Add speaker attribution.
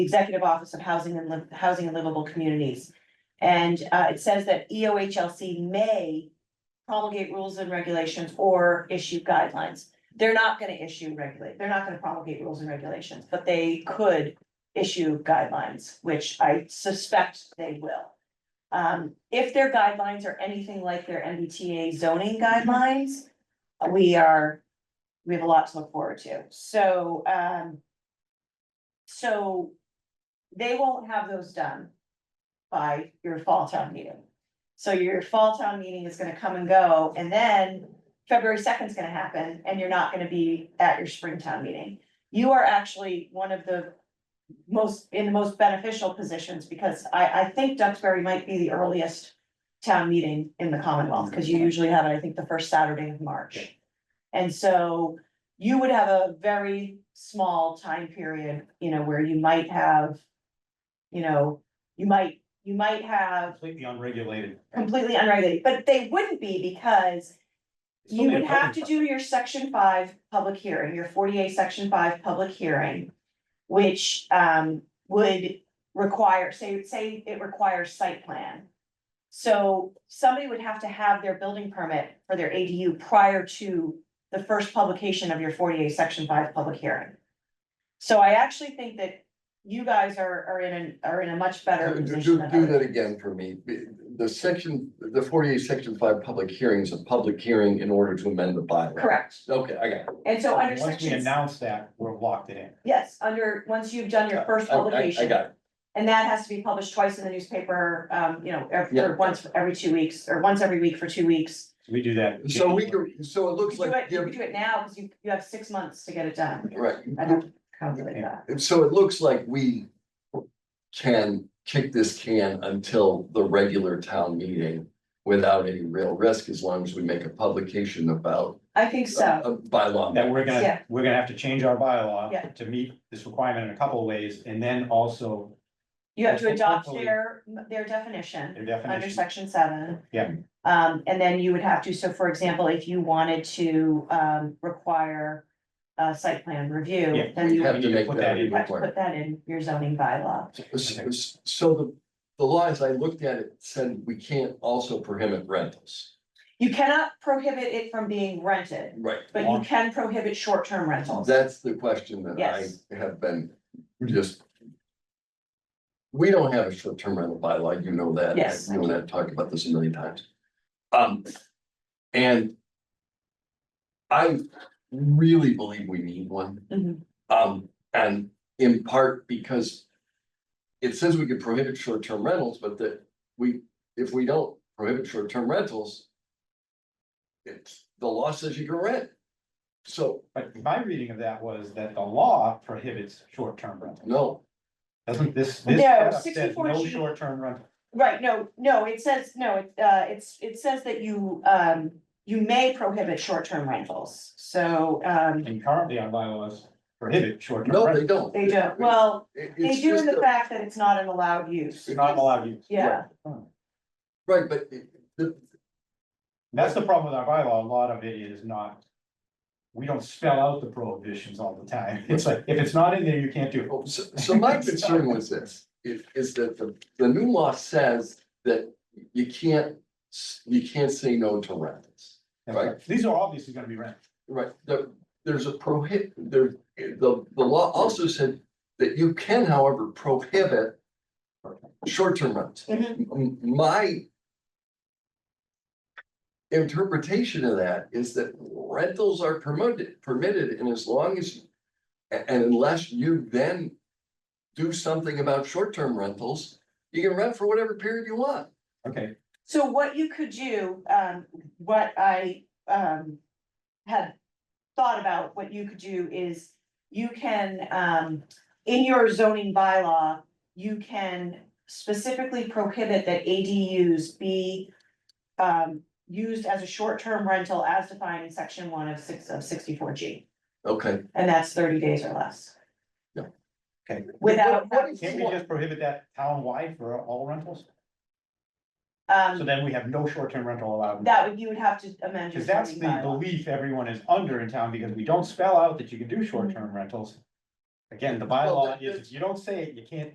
Speaker 1: Executive Office of Housing and Liv- Housing and Livable Communities. And uh, it says that EOHLC may promulgate rules and regulations or issue guidelines. They're not gonna issue regulate, they're not gonna promulgate rules and regulations, but they could issue guidelines, which I suspect they will. Um, if their guidelines are anything like their MBTA zoning guidelines, we are, we have a lot to look forward to. So, um, so they won't have those done by your fall town meeting. So your fall town meeting is gonna come and go, and then February second is gonna happen, and you're not gonna be at your spring town meeting. You are actually one of the most, in the most beneficial positions, because I, I think Duxbury might be the earliest town meeting in the Commonwealth, because you usually have it, I think, the first Saturday of March. And so you would have a very small time period, you know, where you might have, you know, you might, you might have
Speaker 2: Completely unregulated.
Speaker 1: completely unregulated, but they wouldn't be because you would have to do your section five public hearing, your forty-eight section five public hearing, which um would require, say, say it requires site plan. So somebody would have to have their building permit for their ADU prior to the first publication of your forty-eight section five public hearing. So I actually think that you guys are are in an, are in a much better
Speaker 3: Do,
Speaker 1: position
Speaker 3: do
Speaker 1: than
Speaker 3: do
Speaker 1: others.
Speaker 3: that again for me. The- The section, the forty-eight, section five, public hearings, a public hearing in order to amend the bylaw.
Speaker 1: Correct,
Speaker 3: Okay, I got it.
Speaker 1: and so under
Speaker 2: Once we
Speaker 1: sections,
Speaker 2: announce that, we're locked it in.
Speaker 1: yes, under, once you've done your first
Speaker 3: I- I- I
Speaker 1: publication,
Speaker 3: got it.
Speaker 1: And that has to be published twice in the newspaper, um, you know, every,
Speaker 3: Yeah.
Speaker 1: or once every two weeks, or once every week for two weeks.
Speaker 2: We do that. in
Speaker 3: So we
Speaker 2: January.
Speaker 3: can, so it
Speaker 1: You
Speaker 3: looks
Speaker 1: do
Speaker 3: like,
Speaker 1: it, you
Speaker 3: give-
Speaker 1: could do it now, because you, you have six months to get it done.
Speaker 3: right,
Speaker 1: I have to calculate that.
Speaker 3: And so it looks like we can kick this can until the regular town meeting without any real risk, as long as we make a publication about
Speaker 1: I think so,
Speaker 3: a bylaw.
Speaker 2: That we're gonna,
Speaker 1: Yeah.
Speaker 2: we're gonna have to change our
Speaker 1: Yeah.
Speaker 2: bylaw to meet this requirement in a couple of ways, and then also
Speaker 1: you have to
Speaker 2: Well,
Speaker 1: adopt
Speaker 2: hopefully-
Speaker 1: their, their definition
Speaker 2: the
Speaker 1: under
Speaker 2: definition.
Speaker 1: section seven.
Speaker 2: Yeah.
Speaker 1: Um, and then you would have to, so for example, if you wanted to, um, require a site plan review,
Speaker 2: Yeah.
Speaker 1: then you
Speaker 3: Have
Speaker 1: would
Speaker 3: to make
Speaker 2: Put
Speaker 3: that
Speaker 2: that
Speaker 3: a
Speaker 2: in.
Speaker 1: have to put
Speaker 3: requirement.
Speaker 1: that in your zoning bylaw.
Speaker 3: So so the, the law, as I looked at it, said we can't also prohibit rentals.
Speaker 1: You cannot prohibit it from being rented.
Speaker 3: Right.
Speaker 1: But you
Speaker 2: Long-
Speaker 1: can prohibit short-term rentals.
Speaker 3: That's the question that
Speaker 1: Yes.
Speaker 3: I have been just. We don't have a short-term rental bylaw, you know that.
Speaker 1: Yes.
Speaker 3: You and I have talked about this a million times. Um, and. I really believe we need one,
Speaker 1: Mhm.
Speaker 3: um, and in part because. It says we can prohibit short-term rentals, but that we, if we don't prohibit short-term rentals. It's, the law says you can rent. So,
Speaker 2: But my reading of that was that the law prohibits short-term rental.
Speaker 3: no,
Speaker 2: Doesn't this,
Speaker 1: No,
Speaker 2: this setup says
Speaker 1: 64
Speaker 2: no
Speaker 1: G.
Speaker 2: short-term rental.
Speaker 1: Right, no, no, it says, no, it, uh, it's, it says that you, um, you may prohibit short-term rentals, so, um,
Speaker 2: And currently our bylaws prohibit short-term
Speaker 3: No,
Speaker 2: rentals.
Speaker 3: they don't.
Speaker 1: they don't, well,
Speaker 3: It-
Speaker 1: they
Speaker 3: it's
Speaker 1: do in
Speaker 3: just
Speaker 1: the
Speaker 3: a-
Speaker 1: fact that it's not an allowed use.
Speaker 2: You're not allowed to use.
Speaker 1: Yeah,
Speaker 3: Right, but it- the,
Speaker 2: That's the problem with our bylaw, a lot of it is not. We don't spell out the prohibitions all the time, it's like, if it's not in there, you can't do
Speaker 3: oh,
Speaker 2: it.
Speaker 3: so, so my concern was this, is, is that the, the new law says that you can't, s- you can't say no to rentals. Right.
Speaker 2: These are obviously gonna be rent,
Speaker 3: Right, the, there's a prohibit, there, the, the law also said that you can however prohibit short-term rentals.
Speaker 1: Mhm.
Speaker 3: M- My interpretation of that is that rentals are permitted, permitted, and as long as, a- and unless you then do something about short-term rentals, you can rent for whatever period you want.
Speaker 2: okay,
Speaker 1: so what you could do, um, what I, um, had thought about, what you could do is you can, um, in your zoning bylaw, you can specifically prohibit that ADUs be um, used as a short-term rental as defined in section one of six, of sixty-four G,
Speaker 3: Okay,
Speaker 1: and that's thirty days or less.
Speaker 3: Yeah.
Speaker 2: Okay.
Speaker 1: Without,
Speaker 3: What- what is-
Speaker 2: can't we just prohibit that town-wide for all rentals? So
Speaker 1: um,
Speaker 2: then we have no short-term rental allowed.
Speaker 1: that would, you would have to amend your
Speaker 2: Cause that's
Speaker 1: zoning
Speaker 2: the
Speaker 1: bylaw.
Speaker 2: belief everyone is under in town, because we don't spell out that you can do short-term rentals. Again, the
Speaker 3: Well,
Speaker 2: bylaw
Speaker 3: the-
Speaker 2: is, if you don't say it, you can't